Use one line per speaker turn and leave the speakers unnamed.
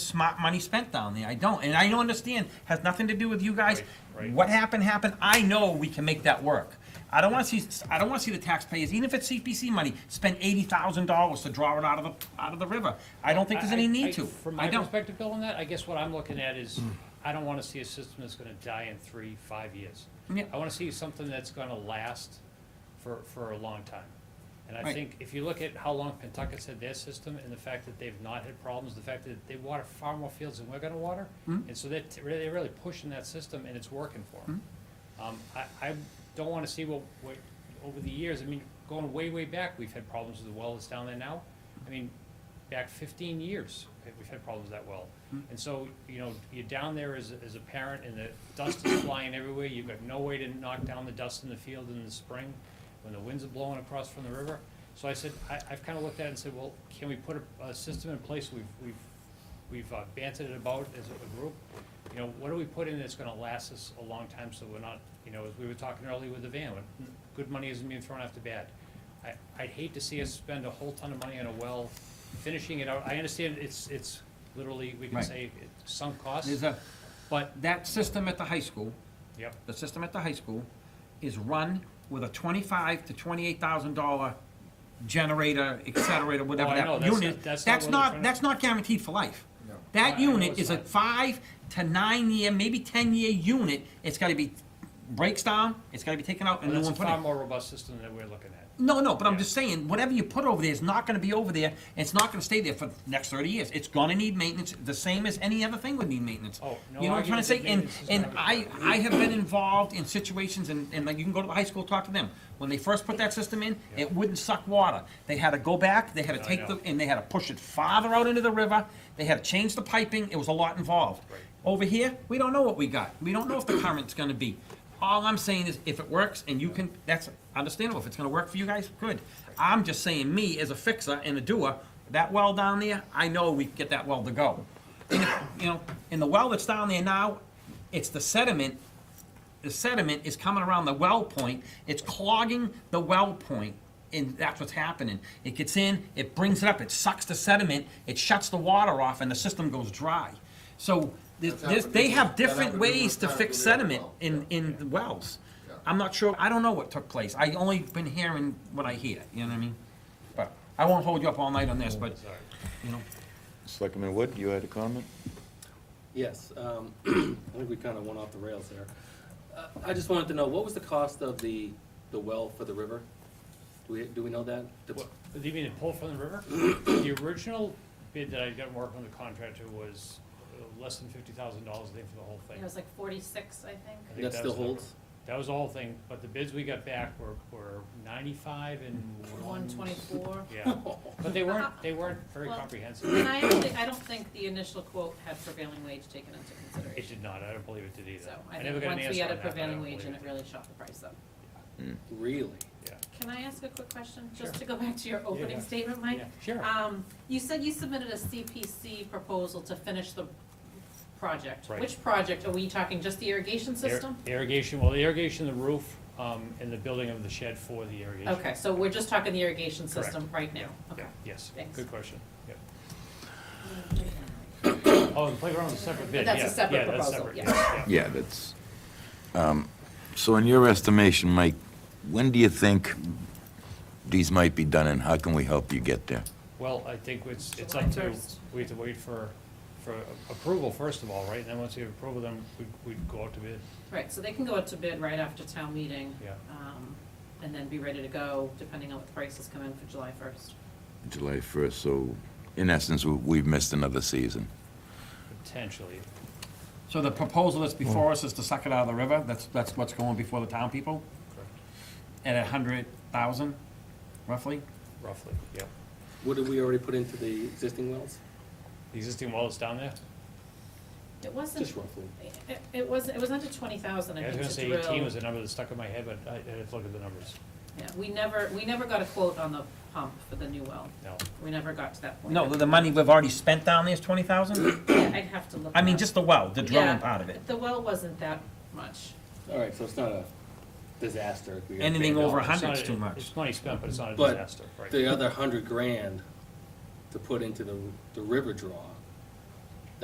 smart money spent down there. I don't, and I don't understand, has nothing to do with you guys.
Right, right.
What happened, happened. I know we can make that work. I don't wanna see, I don't wanna see the taxpayers, even if it's CPC money, spend eighty thousand dollars to draw it out of the, out of the river. I don't think there's any need to.
From
I
my
don't.
perspective, Bill, on that, I guess what I'm looking at is, I don't wanna see a system that's gonna die in three, five years.
Yeah.
I wanna see something that's gonna last for, for a long time. And I
Right.
think if you look at how long Pentucket's had their system and the fact that they've not had problems, the fact that they water far more fields than we're gonna water,
Hmm.
and so they're, t- really- they're really pushing that system and it's working for
Hmm.
them. Um, I, I don't wanna see what, what, over the years, I mean, going way, way back, we've had problems with the well that's down there now. I mean, back fifteen years, okay, we've had problems with that well. And so, you know, you're down there as, a- as a parent and the dust is flying everywhere, you've got no way to knock down the dust in the field in the spring when the winds are blowing across from the river. So I said, I, I've kinda looked at it and said, well, can we put a, a system in place, we've, we've, we've uh, bantered it about as a group? You know, what do we put in that's gonna last us a long time, so we're not, you know, as we were talking earlier with the van, when good money isn't being thrown after bad. I, I'd hate to see us spend a whole ton of money on a well, finishing it out, I understand it's, it's literally, we can
Right.
say, it sunk costs,
There's a,
but,
that system at the high school,
yep,
the system at the high school is run with a twenty-five to twenty-eight thousand dollar generator, accelerator, whatever
Oh, I know,
that
that's
unit.
not-
That's
that's not what they're
not,
trying to-
that's not guaranteed for life.
No.
I-
That
I know
unit
it's
is a
not.
five to nine-year, maybe ten-year unit. It's gotta be, breaks down, it's gotta be taken out and
Well,
new
that's
one put
a far
in.
more robust system than we're looking at.
No, no, but I'm
Yeah.
just saying, whatever you put over there is not gonna be over there, and it's not gonna stay there for the next thirty years. It's gonna need maintenance, the same as any other thing would need maintenance.
Oh, no
You know what I'm trying to
argument
say?
that
And,
maintenance is
and
not
I,
required.
I have been involved in situations, and, and like, you can go to the high school, talk to them. When they first put that system in, it wouldn't suck water. They had to go back, they had to
I
take the,
know.
and they had to push it farther out into the river, they had to change the piping, it was a lot involved.
Right.
Over here, we don't know what we got. We don't know if the current's gonna be. All I'm saying is if it works and you can, that's understandable. If it's gonna work for you guys, good. I'm just saying, me as a fixer and a doer, that well down there, I know we can get that well to go. And if- You know, and the well that's down there now, it's the sediment. The sediment is coming around the well point. It's clogging the well point, And that's what's happening. It gets in, it brings it up, it sucks the sediment, it shuts the water off and the system goes dry. So this,
That's
this,
happened
they
in-
have
that
different
happened in
ways to
Wisconsin
fix
with the other
sediment
well,
in,
yeah.
in the wells.
Yeah.
I'm not sure, I don't know what took place. I only been hearing what I hear, you know what I mean? But I won't hold you up all night on this, but,
Sorry.
you know,
Selectman Wood, you had a comment?
Yes, um, I think we kind of went off the rails there. Uh, I just wanted to know, what was the cost of the, the well for the river? Do we, do we know that? The-
What, do you mean to pull from the river? The original bid that I got working with the contractor was uh, less than fifty thousand dollars, I think, for the whole thing.
It was like forty-six, I think.
I think
That
that
still
was the-
holds?
That was the whole thing, but the bids we got back were, were ninety-five and
One twenty-four.
Yeah, but they weren't, they weren't very
Well-
comprehensive.
And I actually, I don't think the initial quote had prevailing wage taken into
It
consideration.
did not, I don't believe it did either.
So
I
I
never
think
got an
once
answer
we had a
on that, but I
prevailing
don't
wage
believe
and it
it
really shot the price up.
Really?
did.
Can I ask a quick question,
Sure.
just to go back to your opening
yeah.
statement,
Yeah,
Mike?
yeah, sure.
Um, you said you submitted a CPC proposal to finish the project.
Right.
Which project? Are we talking just the irrigation
Ir-
system?
Irrigation, well, the irrigation, the roof, um, and the building of the shed for the irrigation.
Okay, so we're just talking the irrigation
Correct.
system right
Yeah,
now?
yeah,
Okay.
Yes,
Thanks.
good question, yep. Oh, the playground's a separate bid, yeah.
That's a separate
yeah, that's
proposal,
separate,
yeah.
Yeah, that's, um, so in your estimation, Mike, when do you think these might be done and how can we help you get there?
Well, I think it's, it's
July
up to,
1st.
we have to wait for, for approval first of all, right? And then once we have approval, then we'd, we'd go out to bid.
Right, so they can go out to bid right after town meeting.
Yeah.
um, And then be ready to go, depending on what the prices come in for July first.
July 1st, so in essence, we- we've missed another season.
Potentially,
so the proposal that's before us is to suck it out of the river? That's, that's what's going before the town people?
correct,
At a hundred thousand, roughly?
roughly, yeah.
What did we already put into the existing wells?
The existing wall is down there?
It wasn't,
Just roughly.
it, it was, it was under twenty thousand,
Yeah,
I
I was
think,
gonna
to
say
drill.
eighteen was the number that stuck in my head, but I, I had to look at the numbers,
Yeah, we never, we never got a quote on the pump for the new well.
no.
We never got to that point.
No, the money we've already spent down there is twenty thousand?
Yeah, I'd have to look.
I mean,
it up.
just the well, the
Yeah,
drilling part of it.
The well wasn't that much.
All right, so it's not a disaster. if we got
Anything
banned
over
out.
a
It's not
Hundred's
a-
too much.
It's money spent, but it's not a
But
disaster, right?
The other hundred grand to put into the, the river draw,